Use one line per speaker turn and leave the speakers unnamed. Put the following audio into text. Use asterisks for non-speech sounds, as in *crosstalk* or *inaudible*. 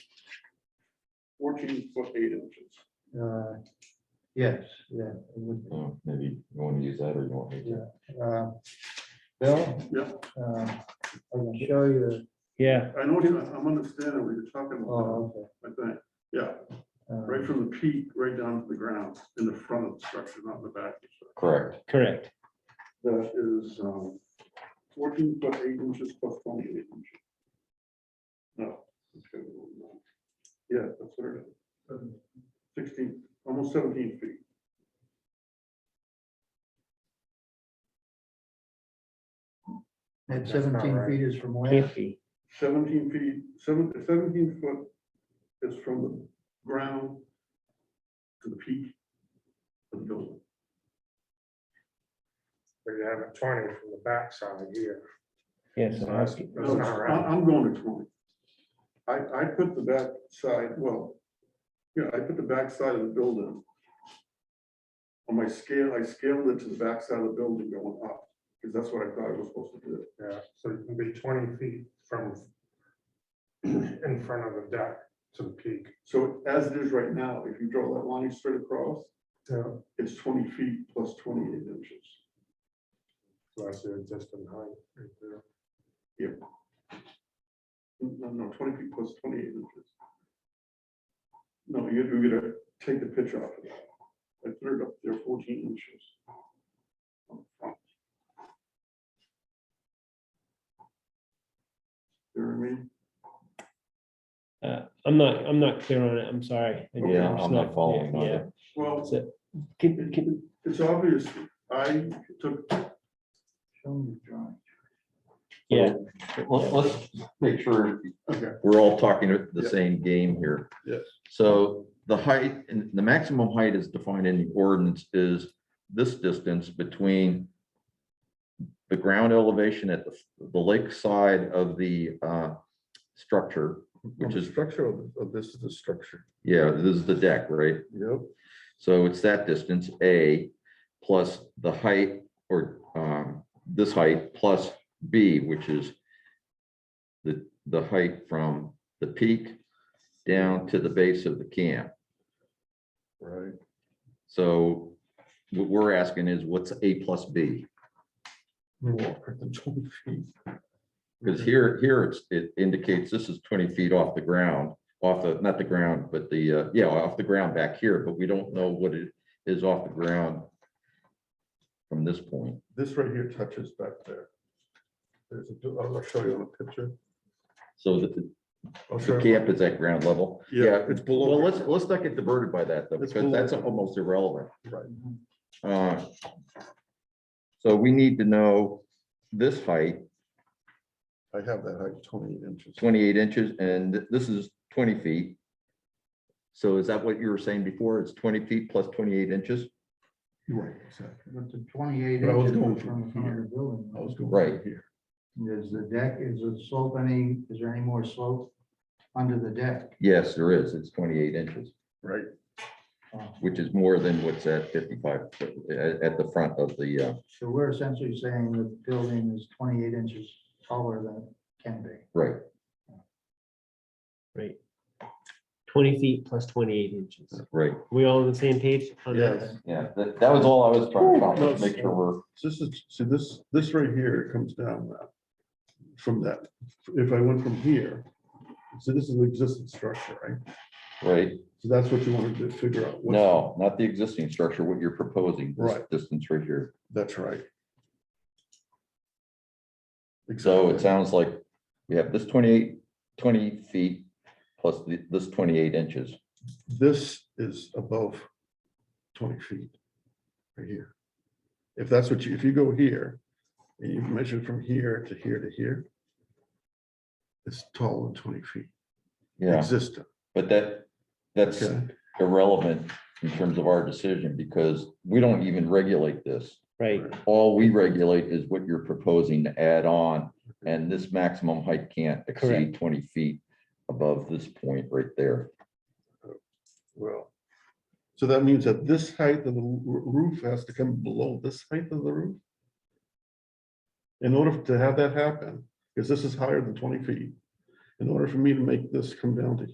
fourteen foot eight inches.
Uh, Yes, yeah. it would be.
Oh, Maybe you want to use that or you want me to?
Uh, Bill?
Yeah.
uh, I can show you.
Yeah,
I know, what you- I'm understanding what you're talking about,
Oh, Um,
I think, yeah,
okay.
right from the peak, right down to the ground, in the front of the structure, not in the back. of the structure.
Correct.
correct.
That is um, fourteen foot eight inches plus twenty-eight inches. No. okay, no. Yeah, that's what it is. Sixteen, almost seventeen feet.
Uh, And seventeen feet is from where?
Fifty.
Seventeen feet, seven- 17 foot is from the ground to the peak of the building.
But you have a twenty from the backside here.
Yes,
So
I'm
that's-
asking-
No,
that's
it's-
not
I-
right.
I'm going to twenty. I, I put the back side, well, yeah, I put the back side of the building. On my scale, I scaled it to the back side of the building going up, because that's what I thought it was supposed to do.
Yeah, so you can be twenty feet from *clears throat* in front of the deck to the peak.
So as it is right now, if you draw that line straight across,
Yeah.
it's twenty feet plus twenty-eight inches.
So that's the existing height. right there.
No, no, twenty feet plus twenty-eight inches. No, you're, you're gonna take the pitch off of that. I put it up there fourteen inches. You know what I mean?
uh, I'm not, I'm not clear on it. I'm sorry. I-
Yeah,
it's
I'm not following
Yeah,
either.
Well,
that's it. Can, can,
it's obvious, I took,
Show me the drawing.
yeah,
Let- Let's make sure
Okay.
we're all talking
Yeah.
the same game here.
Yes.
So the height, and the maximum height is defined in the ordinance is this distance between the ground elevation at the, the lake side of the uh, structure, which is,
Structure of, of this is the structure.
yeah, this is the deck, right?
Yep.
So it's that distance, A, plus the height or um, this height plus B, which is the, the height from the peak down to the base of the camp.
Right.
So what we're asking is what's A plus B?
More than 20 feet.
Because here, here it's, it indicates this is twenty feet off the ground, off the, not the ground, but the, uh, yeah, off the ground back here, but we don't know what it is off the ground from this point.
This right here touches back there. There's a, do- I'll show you on a picture.
So the,
I'll show
the
you-
camp is at ground level.
Yeah, it's
Well,
below.
let's, let's not get diverted by that though,
It's
because that's
below.
almost irrelevant.
Right.
Uh, So we need to know this height,
I have that height, twenty-eight inches.
twenty-eight inches, and this is twenty feet. So is that what you were saying before? It's twenty feet plus twenty-eight inches?
You're Right, exactly.
But the twenty-eight
But I was
inches
going
was from the front of the building.
I was going.
Right.
Here.
Is the deck, is the slope any, is there any more slope under the deck?
Yes, there is. It's twenty-eight inches,
Right,
Uh,
which is more than what's at fifty-five, uh, at, at the front of the, uh,
So we're essentially saying the building is twenty-eight inches taller than it can be.
right.
right. Twenty feet plus twenty-eight inches.
Right,
We all on the same page? on that?
yes.
yeah, that, that was all I was trying to accomplish,
No,
make sure we're,
So This is, see this, this right here comes down that, from that. If I went from here, so this is an existing structure, right?
right,
So that's what you wanted to figure out. what's-
no, not the existing structure, what you're proposing, this
Right.
distance right here.
That's right.
So it
Exactly.
sounds like we have this 28 20 feet plus the- this twenty-eight inches.
This is above twenty feet right here. If that's what you, if you go here, and you measure from here to here to here, it's taller than twenty feet
Yeah,
existing.
but that, that's
Okay.
irrelevant in terms of our decision because we don't even regulate this.
Right,
All we regulate is what you're proposing to add on, and this maximum height can't exceed
Correct.
twenty feet above this point right there.
Well, so that means that this height of the roo- roof has to come below this height of the roof? In order to have that happen, because this is higher than twenty feet, in order for me to make this come down to